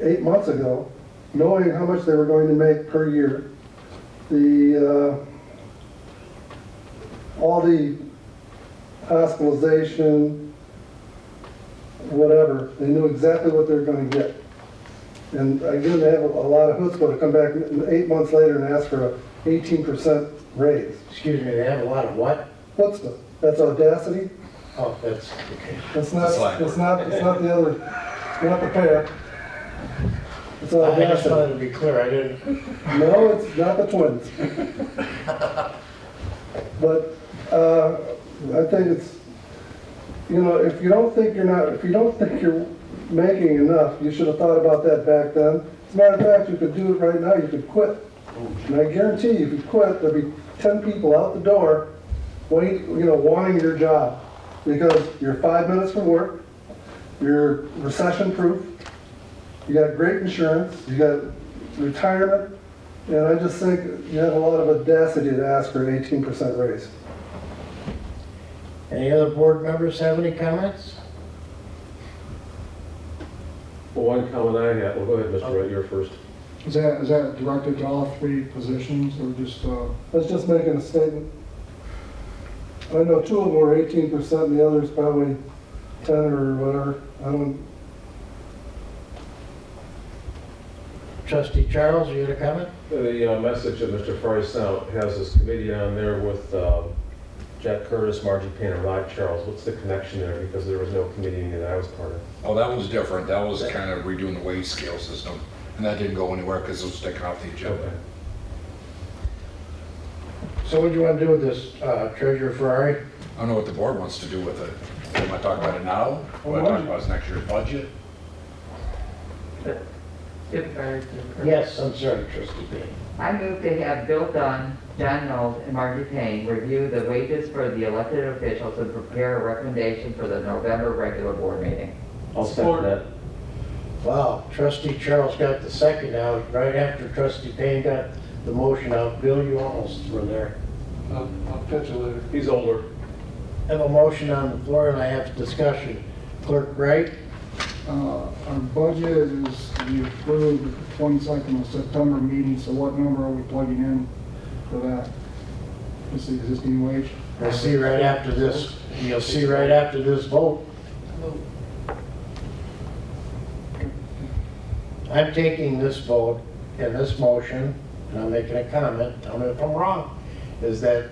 eight months ago, knowing how much they were going to make per year. The, uh, all the hospitalization, whatever, they knew exactly what they were gonna get. And again, they have a lot of chutzpah to come back eight months later and ask for a eighteen percent raise. Excuse me, they have a lot of what? Chutzpah, that's audacity, Oh, that's, okay. that's It's a not, slang it's not, it's not the other, it's not the pair. It's I just audacity. wanted to be clear, I didn't, No, it's not the twins. But uh, I think it's, you know, if you don't think you're not, if you don't think you're making enough, you should have thought about that back then. As a matter of fact, you could do it right now, you could quit. And I guarantee you, if you quit, there'd be 10 people out the door, wait, you know, wanting your job. Because you're five minutes from work, you're recession-proof, you got great insurance, you got retirement, and I just think you have a lot of audacity to ask for an eighteen percent raise. any other board members have any comments? Well, one comment I have, well, go ahead, Mr. Wright, you're first. Is that, is that directed to all three positions or just, uh, That's just making a statement. I know two of them were eighteen percent and the other's probably ten or whatever. I don't, Trustee Charles, you had a comment? The uh, message that Mr. Fry sent has this committee on there with um, Jack Curtis, Margie Payne, and Rod Charles. What's the connection there? Because there was no committee that I was part of. Oh, that one's different. That was kind of redoing the wage scale system, and that didn't go anywhere because it was sticking off the agenda. So what do you want to do with this, uh, Treasurer Ferrari? I don't know what the board wants to do with it. Am I talking about it now? What I talk about is next year's budget? If I- Yes, I'm sorry, Trustee Payne. I move to have Bill Dunn, John Knowles, and Margie Payne review the wages for the elected officials and prepare a recommendation for the November regular board meeting. I'll second that. Wow, Trustee Charles got the second out, right after Trustee Payne got the motion out. Bill, you almost were there. I'll I'll pitch it later. He's older. I have a motion on the floor and I have discussion. Clerk Wright? uh, our budget is, we approved the twenty-second of September meeting, so what number are we plugging in for that? Just the existing wage? We'll see right after this, you'll see right after this vote. I'm taking this vote and this motion, and I'm making a comment, tell me if I'm wrong, is that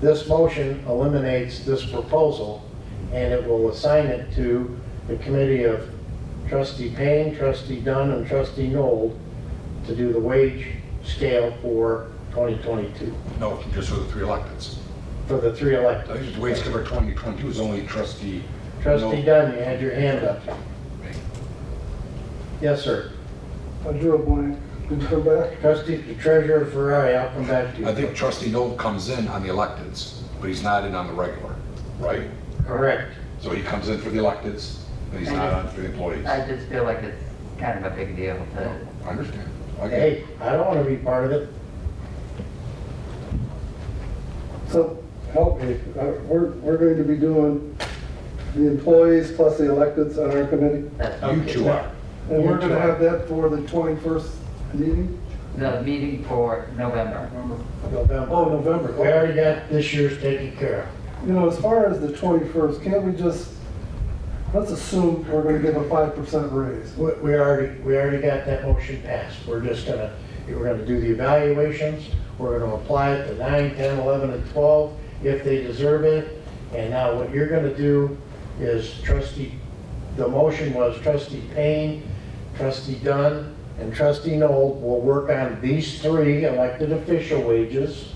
this motion eliminates this proposal, and it will assign it to the committee of trustee Payne, trustee Dunn, and trustee Noel to do the wage scale for 2022, No, just for the three electeds. for the three I elected. think the wage scale for 2022 is only trustee. Trustee No. Dunn, you had your hand up. Yes, sir. I drew a blank. Did you come back? Trustee, the treasurer Ferrari, I'll come back to you. I think trustee Noel comes in on the electeds, but he's not in on the regular, right? Correct. So he comes in for the electeds, but he's not on for the employees. I just feel like it's kind of a big deal to I understand. I get it. Hey, I don't want to be part of it. So help me, Uh, we're, we're going to be doing the employees plus the electeds on our committee. that's You two are. And we're gonna have that for the twenty-first meeting? the meeting for November. November. Oh, November. We already got this year's taken care You know, as far as the 21st, can't we just, let's assume we're going to give a 5% raise. of. We, we already, we already got that motion passed. We're just gonna, we're gonna do the evaluations. We're gonna apply it to nine, 10, 11, and 12 if they deserve it. And now what you're gonna do is trustee, the motion was trustee Payne, trustee Dunn, and trustee Noel will work on these three elected official wages.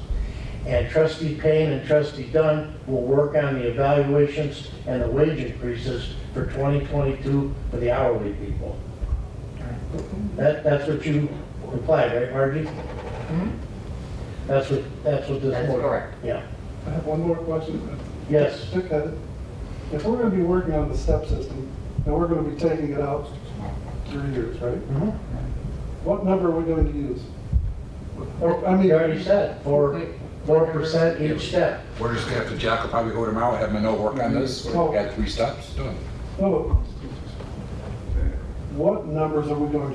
And trustee Payne and trustee Dunn will work on the evaluations and the wage increases for 2022 for the hourly people. That, that's what you implied, right, Margie? That's what, that's what this. That's board- correct. Yeah, I have one more question. yes. Dick had it. If we're going to be working on the step system, and we're going to be taking it out three years, right? Mhm. What number are we going to use? Or, I mean, You already said, four, four percent each step. We're just gonna have to, Jack will probably go tomorrow, have Manoa work on this, Oh. add three steps, done. no, what numbers are we going to